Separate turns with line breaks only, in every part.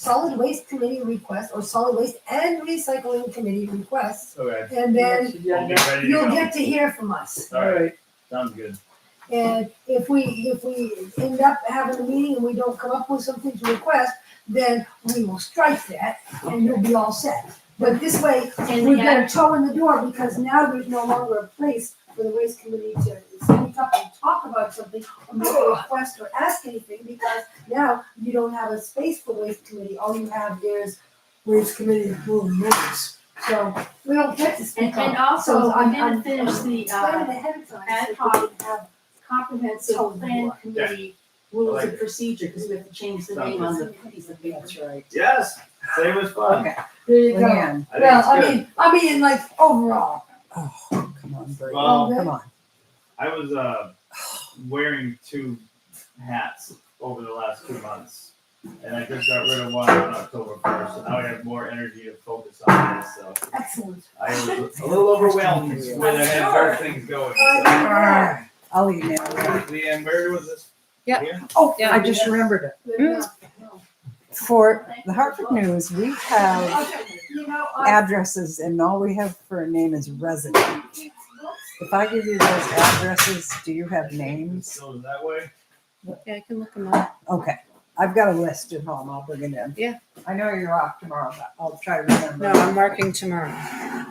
solid waste committee requests or solid waste and recycling committee requests.
Okay.
And then
We'll be
Agenda.
ready to
you'll
go.
get to hear from us.
All right,
Alright,
sounds good.
And if we, if we end up having a meeting and we don't come up with something to request, then we will strike that and you'll be all set. But this way,
And
we've
the
got a
act,
toe in the door because now there's no longer a place for the waste committee to speak up and talk about something or make a request or ask anything because now you don't have a space for waste committee. All you have is waste committee approved minutes. So we don't get to
and,
speak
and
up.
also,
So I'm-
I'm gonna
I'm-
finish the,
Plan
uh,
ahead of time.
ad
so we can have
comprehensive
Tell them
plan
what.
committee
I
rules
like
of
it.
procedure, because we have to change the name on the piece of paper.
That's right.
Yes, same as fun.
Okay.
There you go.
Leanne,
I think
No,
it's
I
good.
mean, I mean, like overall.
come on, Brady.
Well-
Come on.
I was uh wearing two hats over the last two months, and I just got rid of one on October first. So now I have more energy to focus on this. So
Excellent.
I was a little overwhelmed when I had
Sure.
both things going. So.
Uh,
I'll email you.
Leanne, where was this?
Yeah.
Here?
Oh,
Yeah.
I just remembered it.
good enough. No.
For Mm, the Hartford News, we have
Okay, You know, I,
addresses and all we have for a name is resident. If I give you those addresses, do you have names?
So that way.
Yeah, I can look them up.
Okay, I've got a list at home. I'll bring it in.
Yeah.
I know you're off tomorrow, but I'll try to remember.
No, I'm working tomorrow.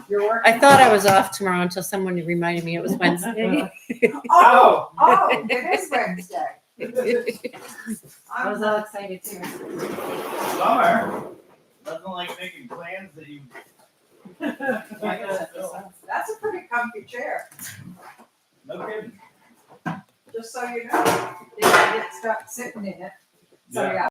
You're working.
I thought I was off tomorrow until someone reminded me it was Wednesday.
Oh, oh, it is Wednesday.
I was
I'm,
all excited too.
Summer. Nothing like making plans that you.
that's a pretty comfy chair,
no kidding.
just so you know. If I get stuck sitting in it, so
Yeah.
yeah.